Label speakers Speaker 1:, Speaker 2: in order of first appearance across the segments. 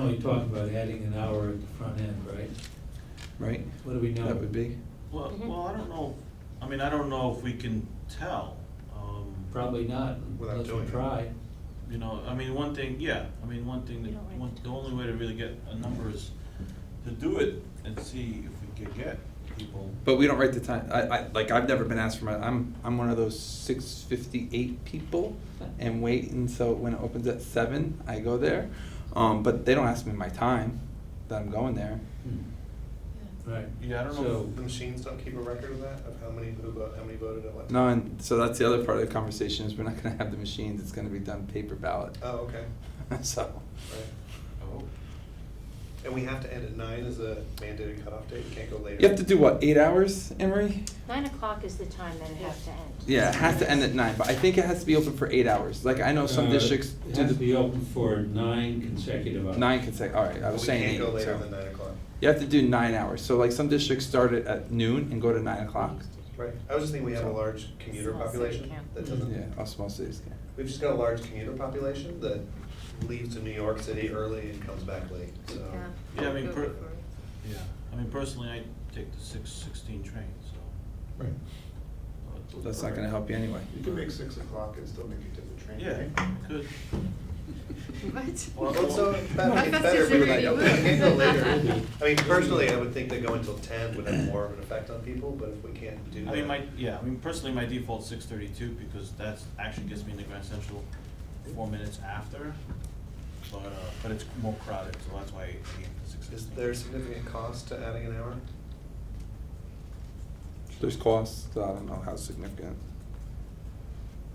Speaker 1: only talking about adding an hour at the front end, right?
Speaker 2: right?
Speaker 1: What do we know?
Speaker 2: That would be,
Speaker 3: Well,
Speaker 4: Mhm.
Speaker 3: well, I don't know, I mean, I don't know if we can tell. um,
Speaker 1: Probably not,
Speaker 5: Without
Speaker 1: unless
Speaker 5: doing
Speaker 1: we
Speaker 5: it.
Speaker 1: try.
Speaker 3: You know, I mean, one thing, yeah, I mean, one thing, that
Speaker 4: You don't like
Speaker 3: one,
Speaker 4: to
Speaker 3: the
Speaker 4: talk.
Speaker 3: only way to really get a number is to do it and see if we could get people.
Speaker 2: but we don't write the time, I, I, like, I've never been asked for my, I'm, I'm one of those six fifty-eight people and wait, and so when it opens at seven, I go there, um, but they don't ask me my time that I'm going there.
Speaker 1: Hmm, Right.
Speaker 3: Yeah, I don't know.
Speaker 5: The machines don't keep a record of that, of how many, who vote, how many voted at what?
Speaker 2: No, and so that's the other part of the conversation is we're not gonna have the machines, it's gonna be done paper ballot,
Speaker 5: Oh, okay,
Speaker 2: so.
Speaker 5: right.
Speaker 3: Oh.
Speaker 5: And we have to end at nine as a mandated cutoff date, can't go later.
Speaker 2: You have to do what, eight hours, Emery?
Speaker 4: Nine o'clock is the time that it has to end.
Speaker 2: Yeah, it has to end at nine, but I think it has to be open for eight hours, like, I know some
Speaker 1: Uh,
Speaker 2: districts
Speaker 1: It
Speaker 2: do
Speaker 1: has to be
Speaker 2: the
Speaker 1: open for nine consecutive hours.
Speaker 2: nine consecutive, alright, I was
Speaker 5: We
Speaker 2: saying eight,
Speaker 5: can't go later
Speaker 2: so.
Speaker 5: than nine o'clock.
Speaker 2: You have to do nine hours, so like some districts start it at noon and go to nine o'clock.
Speaker 5: Right, I was just thinking we have a large commuter
Speaker 4: Small city
Speaker 5: population
Speaker 4: can't.
Speaker 5: that doesn't.
Speaker 2: Yeah, all small cities can.
Speaker 5: We've just got a large commuter population that leaves to New York City early and comes back late, so.
Speaker 3: Yeah, I mean, per, yeah, I mean, personally, I take the six sixteen train, so.
Speaker 5: Right.
Speaker 3: uh,
Speaker 2: That's not gonna help you anyway.
Speaker 6: You can make six o'clock and still make it to the train.
Speaker 3: Yeah, good.
Speaker 5: Well,
Speaker 6: What?
Speaker 5: it's so, it's better-
Speaker 6: How
Speaker 5: it's
Speaker 6: fast
Speaker 5: better if
Speaker 6: is your
Speaker 5: we like,
Speaker 6: radio?
Speaker 5: can't go later. I mean, personally, I would think that going till ten would have more of an effect on people, but if we can't do that.
Speaker 3: I mean, my, yeah, I mean, personally, my default's six thirty-two, because that's, actually gets me into Grand Central four minutes after, but, uh, but it's more crowded, so that's why I aim for six
Speaker 5: Is
Speaker 3: fifteen.
Speaker 5: there significant cost to adding an hour?
Speaker 2: There's costs, so I don't know how significant.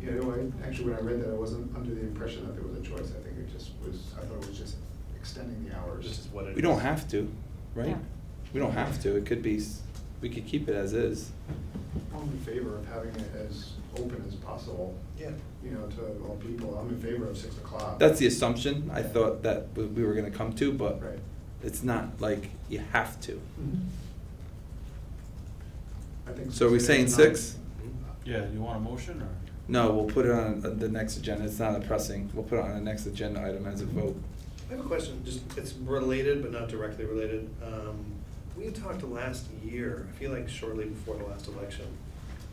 Speaker 6: You know, I, actually, when I read that, I wasn't under the impression that there was a choice. I think it just was, I thought it was just extending the hours.
Speaker 5: This is what it is.
Speaker 2: We don't have to, right?
Speaker 4: Yeah.
Speaker 2: We don't have to, it could be, s- we could keep it as is.
Speaker 6: I'm in favor of having it as open as possible,
Speaker 5: Yeah,
Speaker 6: you know, to all people. I'm in favor of six o'clock.
Speaker 2: That's the assumption I thought that we- we were gonna come to, but
Speaker 6: Right.
Speaker 2: it's not like you have to.
Speaker 1: Mhm.
Speaker 6: Mm-hmm. I think.
Speaker 2: So are we saying six?
Speaker 3: Yeah, you want a motion, or?
Speaker 2: No, we'll put it on uh, the next agenda, it's not a pressing, we'll put it on the next agenda item as a vote.
Speaker 5: I have a question, just, it's related but not directly related. Um, We had talked last year, I feel like shortly before the last election,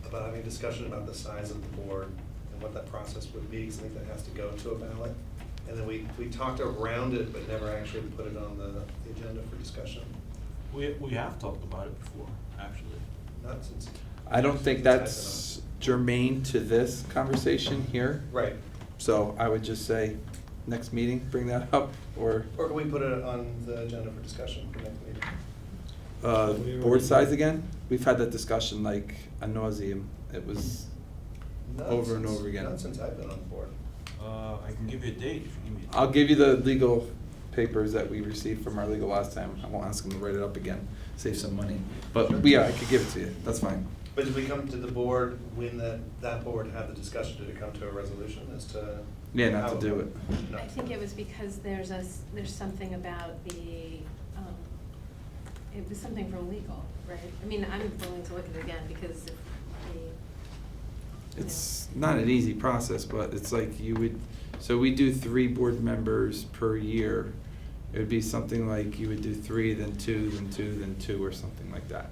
Speaker 5: about having a discussion about the size of the board and what that process would be, 'cause I think that has to go to a ballot. And then we, we talked around it, but never actually put it on the the agenda for discussion,
Speaker 3: We, we have talked about it before, actually.
Speaker 5: not since.
Speaker 2: I don't think
Speaker 5: since I've been
Speaker 2: that's
Speaker 5: on.
Speaker 2: germane to this conversation here.
Speaker 5: Right,
Speaker 2: So I would just say, next meeting, bring that up, or,
Speaker 5: or can we put it on the agenda for discussion for next meeting?
Speaker 2: uh, board size again? We've had that discussion like a nauseam. It was,
Speaker 5: Not
Speaker 2: Over and
Speaker 5: since-
Speaker 2: over again.
Speaker 5: Not since I've been on the board.
Speaker 3: Uh, I can give you a date, if you give me. a date.
Speaker 2: I'll give you the legal papers that we received from our legal last time. I won't ask them to write it up again, save some money. But, yeah, I could give it to you, that's fine.
Speaker 5: But did we come to the board when that, that board had the discussion, did it come to a resolution as to?
Speaker 2: Yeah, not to
Speaker 5: how-
Speaker 2: do it.
Speaker 5: No.
Speaker 7: I think it was because there's a, s- there's something about the, um, it was something from legal, right? I mean, I'm willing to look at it again because if the.
Speaker 2: It's not an easy process, but it's like you would, so we do three board members per year. It would be something like you would do three, then two, then two, then two, or something like that.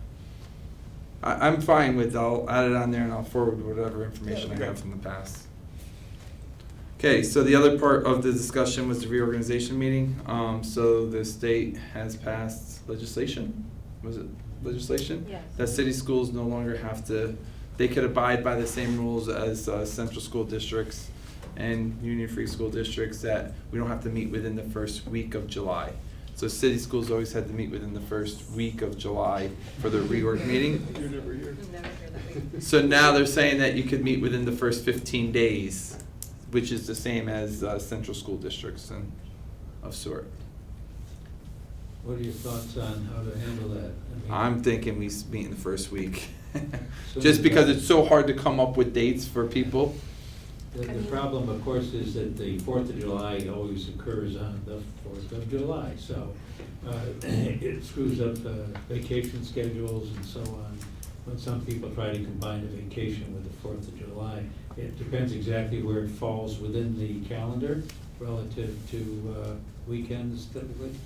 Speaker 2: I, I'm fine with, I'll add it on there and I'll forward whatever information I
Speaker 5: Yeah,
Speaker 2: have
Speaker 5: great.
Speaker 2: from the past. Okay, so the other part of the discussion was the reorganization meeting. Um, so the state has passed legislation, was it legislation?
Speaker 7: Yes.
Speaker 2: That city schools no longer have to, they could abide by the same rules as, uh, central school districts and union free school districts that we don't have to meet within the first week of July. So city schools always had to meet within the first week of July for their reorg meeting.
Speaker 6: You're never here.
Speaker 7: You'll never hear that week.
Speaker 2: So now they're saying that you could meet within the first fifteen days, which is the same as uh, central school districts and of sort.
Speaker 1: What are your thoughts on how to handle that? I mean-
Speaker 2: I'm thinking we s- meet in the first week, just because it's so hard to come up with dates for people.
Speaker 1: The,
Speaker 7: Can
Speaker 1: the
Speaker 7: you-
Speaker 1: problem, of course, is that the Fourth of July always occurs on the Fourth of July, so, uh, it screws up uh, vacation schedules and so on. When some people try to combine a vacation with the Fourth of July, it depends exactly where it falls within the calendar, relative to uh, weekends typically?